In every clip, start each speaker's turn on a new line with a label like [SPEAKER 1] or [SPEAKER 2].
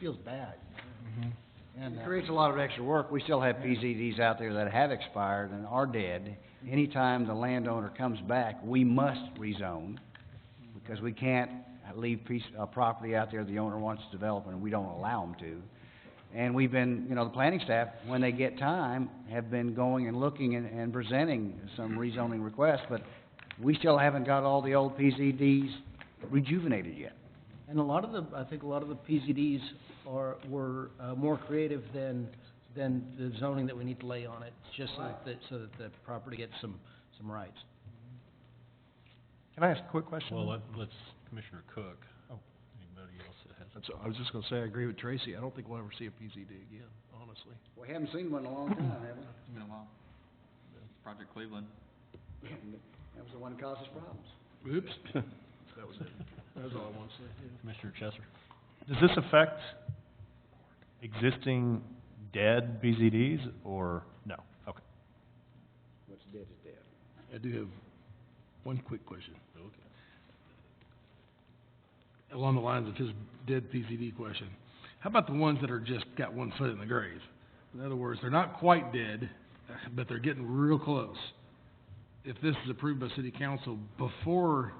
[SPEAKER 1] feels bad. And,
[SPEAKER 2] It
[SPEAKER 3] Mm-hmm.
[SPEAKER 1] uh,
[SPEAKER 2] creates a lot of extra work. We still have PZDs out there that have expired and are dead. Anytime the landowner comes back, we must rezone, because we can't leave piece, uh, property out there the owner wants to develop, and we don't allow them to. And we've been, you know, the planning staff, when they get time, have been going and looking and, and presenting some rezoning requests, but we still haven't got all the old PZDs rejuvenated yet.
[SPEAKER 1] and a lot of the, I think a lot of the PZDs are, were, uh, more creative than, than the zoning that we need to lay on it, just so that, so that the property gets some, some rights.
[SPEAKER 3] Can I ask a quick question?
[SPEAKER 4] Well, uh, let, let's, Commissioner Cook,
[SPEAKER 3] Oh.
[SPEAKER 4] anybody else that has,
[SPEAKER 3] That's, I was just gonna say, I agree with Tracy, I don't think we'll ever see a PZD again, honestly.
[SPEAKER 2] We haven't seen one in a long time, have we?
[SPEAKER 5] It's been a while. Project Cleveland.
[SPEAKER 2] That was the one that caused us problems.
[SPEAKER 3] Oops. That was it, that's all I want to say, yeah.
[SPEAKER 4] Commissioner Chesser?
[SPEAKER 6] Does this affect existing dead BZDs or no? Okay.
[SPEAKER 2] What's dead is dead.
[SPEAKER 3] I do have one quick question. Along the lines of his dead PCD question, how about the ones that are just got one foot in the grave? In other words, they're not quite dead, but they're getting real close. If this is approved by city council before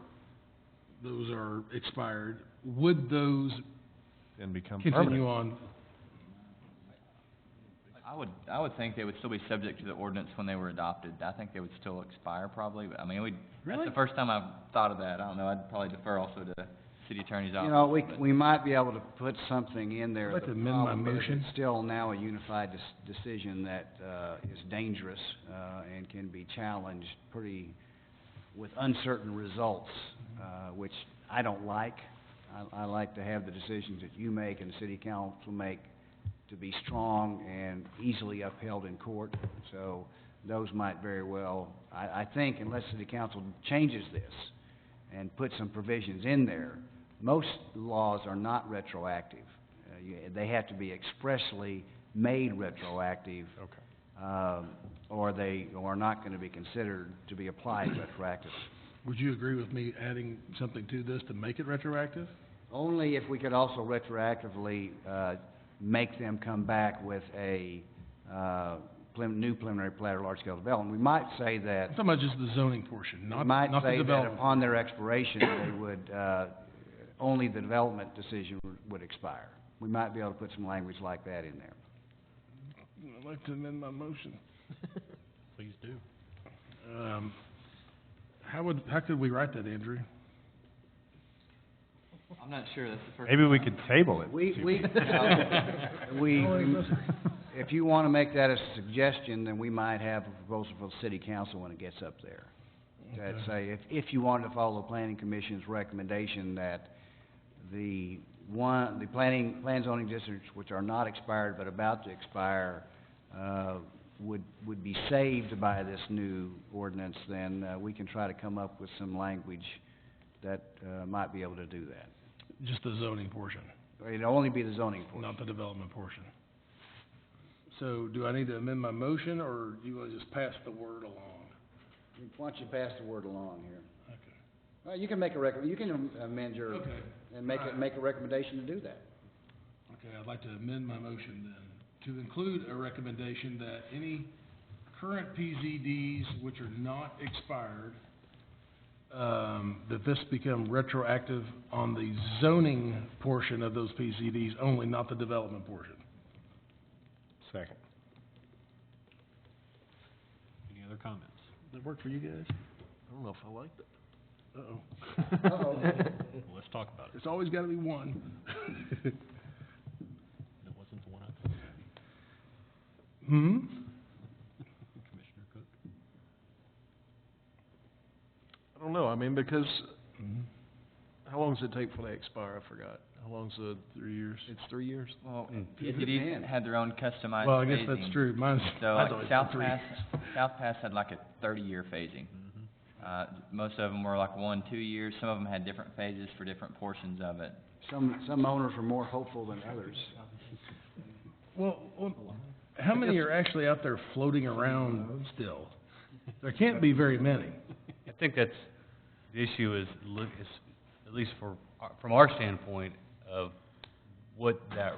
[SPEAKER 3] those are expired, would those
[SPEAKER 6] And become permanent?
[SPEAKER 3] continue on?
[SPEAKER 5] I would, I would think they would still be subject to the ordinance when they were adopted. I think they would still expire probably, but I mean, we, that's the first time I've thought of that. I don't know, I'd probably defer also to city attorney's office.
[SPEAKER 2] You know, we, c-
[SPEAKER 5] but-
[SPEAKER 2] we might be able to put something in there.
[SPEAKER 3] I'd like
[SPEAKER 2] The
[SPEAKER 3] to amend my
[SPEAKER 2] problem is
[SPEAKER 3] motion.
[SPEAKER 2] It's still now a unified des- decision that, uh, is dangerous, uh, and can be challenged pretty, with uncertain results, uh, which I don't like. I, I like to have the decisions that you make and the city council make to be strong and easily upheld in court. So those might very well, I, I think unless city council changes this and puts some provisions in there, most laws are not retroactive. Uh, you, they have to be expressly made retroactive. Um, or they, or are not gonna be considered to be applied retroactive.
[SPEAKER 3] Would you agree with me adding something to this to make it retroactive?
[SPEAKER 2] Only if we could also retroactively, uh, make them come back with a, uh, prelim- new preliminary plat or large-scale development. We might say that
[SPEAKER 3] I'm talking about just the zoning portion,
[SPEAKER 2] We
[SPEAKER 3] not,
[SPEAKER 2] might
[SPEAKER 3] not the
[SPEAKER 2] say that
[SPEAKER 3] development.
[SPEAKER 2] upon their expiration, they would, uh, only the development decision would- would expire. We might be able to put some language like that in there.
[SPEAKER 3] I'd like to amend my motion.
[SPEAKER 4] Please do.
[SPEAKER 3] Um, how would, how could we write that, Andrew?
[SPEAKER 5] I'm not sure, that's the first.
[SPEAKER 6] Maybe we could table it.
[SPEAKER 2] We,
[SPEAKER 6] to-
[SPEAKER 2] we, we, if you want to make that a suggestion, then we might have a proposal for the city council when it gets up there. That say, if, if you wanted to follow the planning commission's recommendation that the one, the planning, plan zoning districts which are not expired but about to expire, uh, would, would be saved by this new ordinance, then, uh, we can try to come up with some language that, uh, might be able to do that.
[SPEAKER 3] Just the zoning portion,
[SPEAKER 2] It'd only be the zoning portion.
[SPEAKER 3] not the development portion. So do I need to amend my motion, or do you wanna just pass the word along?
[SPEAKER 2] Why don't you pass the word along here?
[SPEAKER 3] Okay.
[SPEAKER 2] Well, you can make a rec, you can am- amend your,
[SPEAKER 3] Okay.
[SPEAKER 2] and make, a-
[SPEAKER 3] Alright.
[SPEAKER 2] make a recommendation to do that.
[SPEAKER 3] Okay, I'd like to amend my motion then, to include a recommendation that any current PZDs which are not expired, um, that this become retroactive on the zoning portion of those PZDs only, not the development portion.
[SPEAKER 6] Second.
[SPEAKER 4] Any other comments?
[SPEAKER 3] That work for you guys? I don't know if I like that. Uh-oh.
[SPEAKER 4] Well, let's talk about it.
[SPEAKER 3] It's always gotta be one.
[SPEAKER 4] That wasn't the one I thought.
[SPEAKER 3] Hmm?
[SPEAKER 4] Commissioner Cook?
[SPEAKER 3] I don't know, I mean, because, how long does it take before they expire? I forgot. How long's the? Three years. It's three years?
[SPEAKER 5] Well,
[SPEAKER 2] It
[SPEAKER 5] PCDs
[SPEAKER 2] depends.
[SPEAKER 5] had their own customized phasing.
[SPEAKER 3] Hmm. Well, I guess that's true, mine's,
[SPEAKER 5] So
[SPEAKER 3] mine's
[SPEAKER 5] like
[SPEAKER 3] always been
[SPEAKER 5] South
[SPEAKER 3] three.
[SPEAKER 5] Pass, South Pass had like a thirty-year phasing.
[SPEAKER 3] Mm-hmm.
[SPEAKER 5] Uh, most of them were like one, two years. Some of them had different phases for different portions of it.
[SPEAKER 2] Some, some owners are more hopeful than others.
[SPEAKER 3] Well, well, how many are actually out there floating around still? There can't be very many.
[SPEAKER 7] I think that's, the issue is, uh, look, is, at least for, our- from our standpoint, of what that